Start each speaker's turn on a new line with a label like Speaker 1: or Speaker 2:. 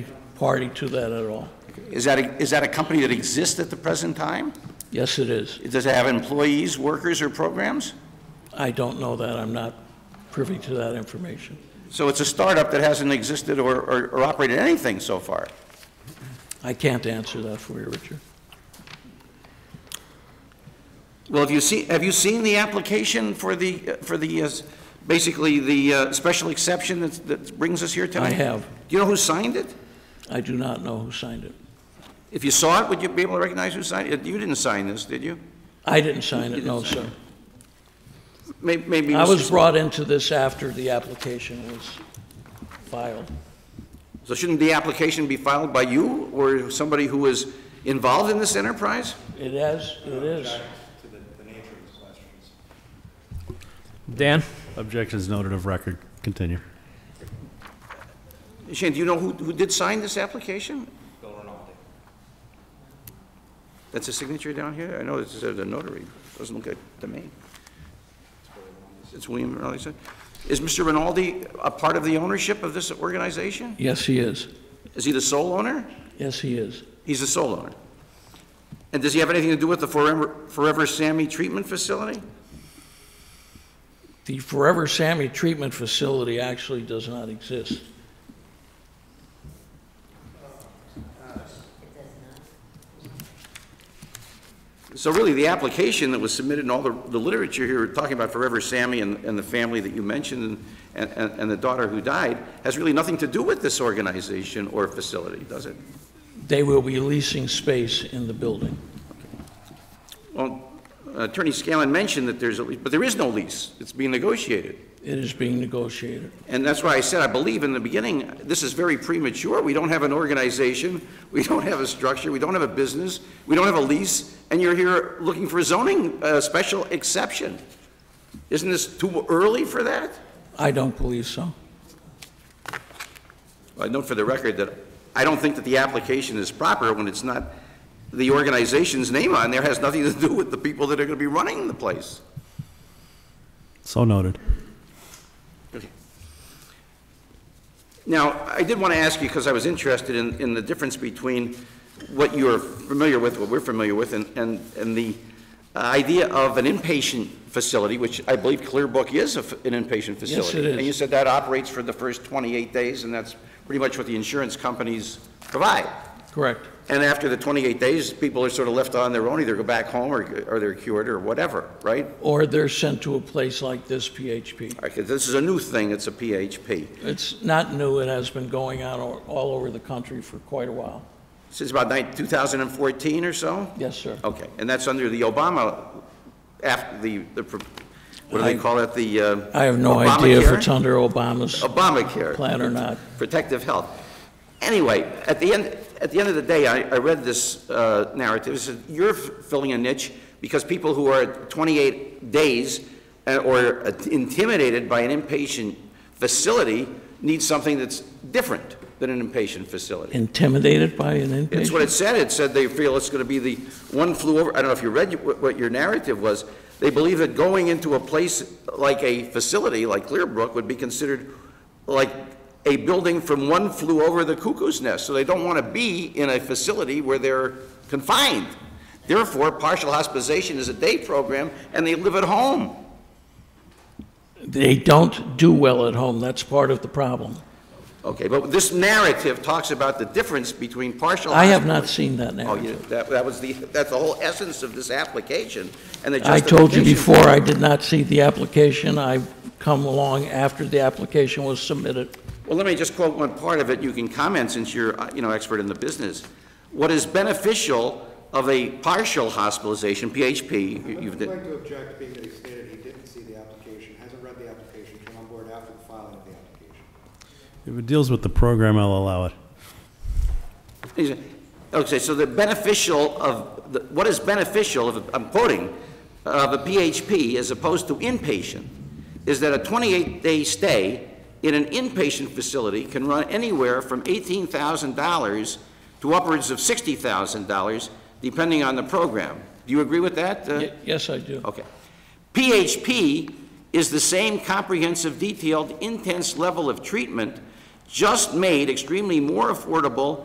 Speaker 1: party to that at all.
Speaker 2: Is that, a- is that a company that exists at the present time?
Speaker 1: Yes, it is.
Speaker 2: Does it have employees, workers, or programs?
Speaker 1: I don't know that. I'm not privy to that information.
Speaker 2: So it's a startup that hasn't existed or, or or operated anything so far.
Speaker 1: I can't answer that for you, Richard.
Speaker 2: Well, have you seen, have you seen the application for the, for the, uh, basically, the uh, special exception that's- that brings us here tonight?
Speaker 1: have.
Speaker 2: Do you know who signed it?
Speaker 1: I do not know who signed it.
Speaker 2: If you saw it, would you be able to recognize who signed it? You didn't sign this, did you?
Speaker 1: I didn't sign it, no, sir.
Speaker 2: May- Maybe.
Speaker 1: I
Speaker 2: Mr.
Speaker 1: was
Speaker 2: Sl-
Speaker 1: brought into this after the application was filed.
Speaker 2: So shouldn't the application be filed by you or somebody who is involved in this enterprise?
Speaker 1: It has, it is.
Speaker 3: Dan? Objections noted of record. Continue.
Speaker 2: Shane, do you know who, who did sign this application? Bill Rinaldi. That's a signature down here? I know it's said a notary, doesn't look like to me. It's William Rinaldi. sir. Is Mr. Rinaldi a part of the ownership of this organization?
Speaker 1: Yes, he is.
Speaker 2: Is he the sole owner?
Speaker 1: Yes, he is.
Speaker 2: He's the sole owner. And does he have anything to do with the Forever, Forever Sammy Treatment Facility?
Speaker 1: The Forever Sammy Treatment Facility actually does not exist.
Speaker 2: So really, the application that was submitted and all the, the literature here, talking about Forever Sammy and, and the family that you mentioned and, and, and the daughter who died, has really nothing to do with this organization or facility, does it?
Speaker 1: They will be leasing space in the building.
Speaker 2: Well, Attorney Scanlon mentioned that there's a lease, but there is no lease. It's being negotiated.
Speaker 1: It is being negotiated.
Speaker 2: And that's why I said, I believe in the beginning, this is very premature. We don't have an organization, we don't have a structure, we don't have a business, we don't have a lease, and you're here looking for zoning, uh, special exception. Isn't this too early for that?
Speaker 1: I don't believe so.
Speaker 2: I note for the record that I don't think that the application is proper when it's not, the organization's name on there has nothing to do with the people that are going to be running the place.
Speaker 3: So noted.
Speaker 2: Now, I did want to ask you, because I was interested in, in the difference between what you're familiar with, what we're familiar with, and, and, and the idea of an inpatient facility, which I believe Clear Book is a f- an inpatient facility.
Speaker 1: it is.
Speaker 2: And you said that operates for the first 28 days, and that's pretty much what the insurance companies provide.
Speaker 1: Correct.
Speaker 2: And after the 28 days, people are sort of left on their own, either go back home or, or they're cured or whatever, right?
Speaker 1: Or they're sent to a place like this PHP.
Speaker 2: All right, 'cause this is a new thing, it's a PHP.
Speaker 1: It's not new, it has been going on all all over the country for quite a while.
Speaker 2: Since about nine- 2014 or so?
Speaker 1: Yes, sir.
Speaker 2: Okay, and that's under the Obama, af the, the, pro- what do they
Speaker 1: I-
Speaker 2: call it, the uh,
Speaker 1: I have no idea if
Speaker 2: Obamacare?
Speaker 1: it's under Obama's
Speaker 2: Obamacare.
Speaker 1: plan or not.
Speaker 2: Protective health. Anyway, at the end, at the end of the day, I, I read this uh, narrative, it said, you're f- filling a niche because people who are at 28 days uh, or intimidated by an inpatient facility need something that's different than an inpatient facility.
Speaker 1: Intimidated by an
Speaker 2: It's what
Speaker 1: inpatient?
Speaker 2: it said. It said they feel it's going to be the one flew over, I don't know if you read what what your narrative was. They believe that going into a place like a facility like Clearbrook would be considered like a building from one flew over the cuckoo's nest. So they don't want to be in a facility where they're confined. Therefore, partial hospitalization is a day program and they live at home.
Speaker 1: They don't do well at home, that's part of the problem.
Speaker 2: Okay, but this narrative talks about the difference between partial.
Speaker 1: I have
Speaker 2: hospi-
Speaker 1: not seen that
Speaker 2: Oh, you,
Speaker 1: narrative.
Speaker 2: that, that was the, that's the whole essence of this application and the
Speaker 1: I
Speaker 2: justification.
Speaker 1: told you before, I did not see the application. I've come along after the application was submitted.
Speaker 2: Well, let me just quote one part of it. You can comment since you're, uh, you know, expert in the business. What is beneficial of a partial hospitalization, PHP, you-
Speaker 4: I'd
Speaker 2: you've,
Speaker 4: like
Speaker 2: did-
Speaker 4: to object, being that he stated he didn't see the application, hasn't read the application, came on board after the filing of the application.
Speaker 3: If it deals with the program, I'll allow it.
Speaker 2: He said- Okay, so the beneficial of, the- what is beneficial, of I'm quoting, of a PHP as opposed to inpatient, is that a 28-day stay in an inpatient facility can run anywhere from $18,000 to upwards of $60,000, depending on the program. Do you agree with that? uh,
Speaker 1: Ye- Yes, I do.
Speaker 2: Okay. PHP is the same comprehensive, detailed, intense level of treatment, just made extremely more affordable